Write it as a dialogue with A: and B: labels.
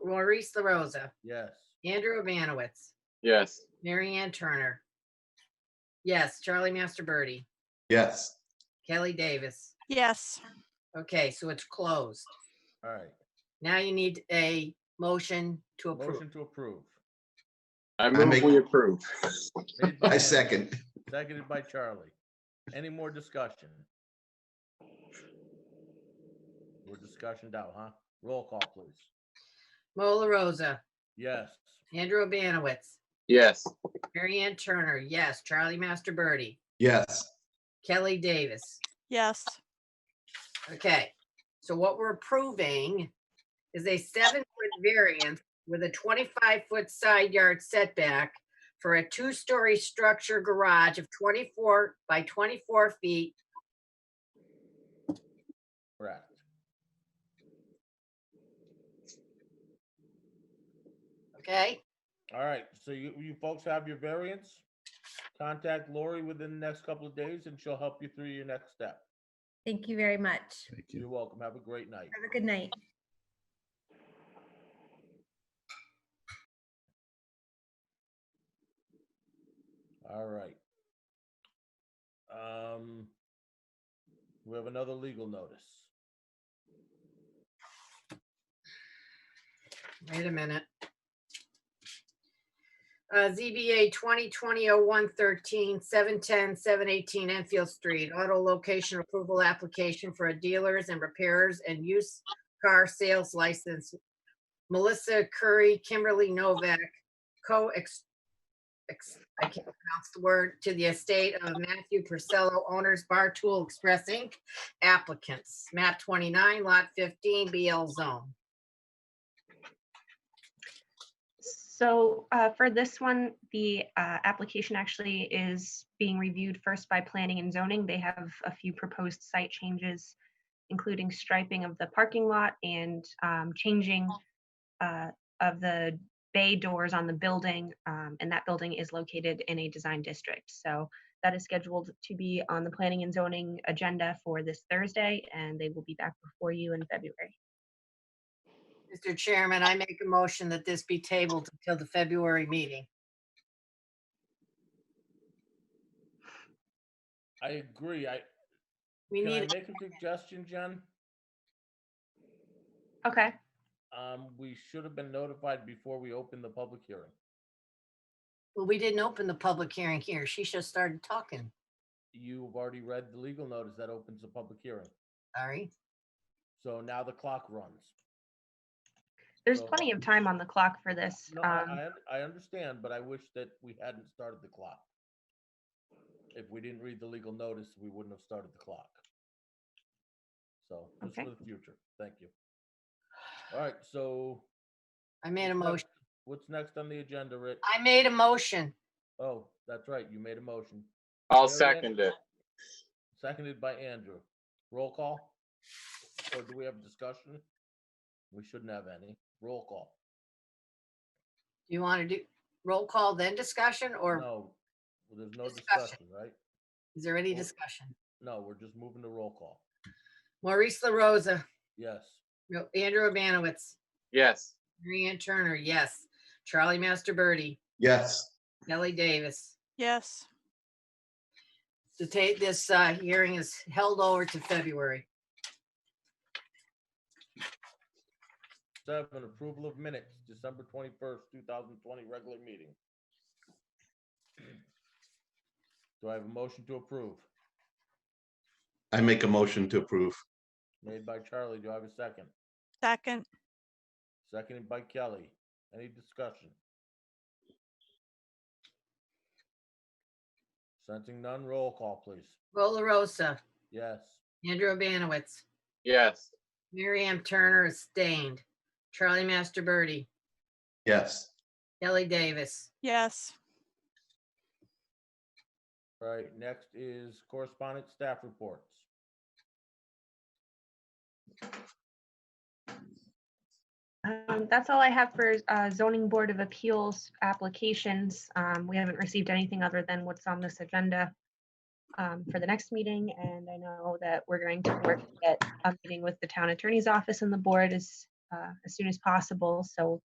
A: Maurice LaRosa,
B: Yes.
A: Andrew Abanowitz,
C: yes,
A: Mary Ann Turner. Yes, Charlie Master Birdie,
D: yes,
A: Kelly Davis.
E: yes,
A: Okay, so it's closed.
B: All right.
A: Now you need a motion to approve.
B: Motion to approve.
C: I move
D: make-
C: we approve.
B: Made by
D: I
B: Mike,
D: second,
B: Seconded by Charlie. Any more discussion? We're discussion down, huh? Roll call, please.
A: Mo La Rosa,
B: Yes.
A: Andrew Abanowitz,
C: Yes,
A: Mary Ann Turner, yes, Charlie Master Birdie,
D: yes,
A: Kelly Davis.
E: yes,
A: Okay, so what we're approving is a seven-foot variance with a twenty-five-foot side yard setback for a two-story structure garage of twenty-four by twenty-four feet.
B: Correct.
A: Okay,
B: All right, so you, you folks have your variance. Contact Lori within the next couple of days and she'll help you through your next step.
F: Thank you very much.
G: Thank you.
B: You're welcome. Have a great night.
F: Have a good night.
B: All right. Um, we have another legal notice.
A: wait a minute. Uh, ZBA 2020-0113, 710, 718 Enfield Street, auto location approval application for a dealers and repairers and used car sales license. Melissa Curry, Kimberly Novak, co ex, ex- I can't pronounce the word, to the estate of Matthew Purcello, owners Bar Tool Express Inc., applicants, map 29, lot 15, BL zone.
H: So uh, for this one, the uh, application actually is being reviewed first by planning and zoning. They have a few proposed site changes, including striping of the parking lot and um, changing uh, of the bay doors on the building. um, And that building is located in a design district. So that is scheduled to be on the planning and zoning agenda for this Thursday, and they will be back before you in February.
A: Mr. Chairman, I make a motion that this be tabled until the February meeting.
B: I agree. I,
A: We
B: can I
A: need,
B: make a suggestion, Jen?
H: Okay.
B: Um, we should have been notified before we opened the public hearing.
A: well, we didn't open the public hearing here. She just started talking.
B: You've already read the legal notice that opens the public hearing.
A: Sorry.
B: So now the clock runs.
H: There's
B: So-
H: plenty of time on the clock for this.
B: No,
H: um,
B: I, I, I understand, but I wish that we hadn't started the clock. If we didn't read the legal notice, we wouldn't have started the clock. So, just
H: Okay.
B: for the future, thank you. All right, so.
A: I made a
B: what's next-
A: motion.
B: What's next on the agenda, Rick?
A: I made a motion.
B: Oh, that's right, you made a motion, There
C: I'll
B: it is.
C: second it.
B: seconded by Andrew. Roll call? Or do we have discussion? We shouldn't have any. Roll call.
A: Do you want to do roll call then discussion or
B: No, well, there's no
A: Discussion.
B: discussion, right?
A: is there any
B: Roll-
A: discussion?
B: No, we're just moving to roll call.
A: Maurice LaRosa,
B: Yes.
A: no, Andrew Abanowitz,
C: Yes,
A: Mary Ann Turner, yes. Charlie Master Birdie,
D: yes.
A: Kelly Davis.
E: yes.
A: To take this, uh, hearing is held over to February.
B: Seven, approval of minutes, December twenty-first, two thousand twenty, regular meeting. Do I have a motion to approve?
D: I make a motion to approve.
B: Made by Charlie, do I have a second?
E: Second,
B: Seconded by Kelly. Any discussion? Sensing none, roll call, please.
A: Roll LaRosa,
B: Yes.
A: Andrew Abanowitz,
C: yes,
A: Mary Ann Turner is stained. Charlie Master Birdie,
D: Yes,
A: Kelly Davis.
E: yes,
B: All right, next is correspondent staff reports.
H: Um, that's all I have for uh, zoning board of appeals applications. Um, we haven't received anything other than what's on this agenda um, for the next meeting, and I know that we're going to work at a meeting with the town attorney's office and the board as uh, as soon as possible. So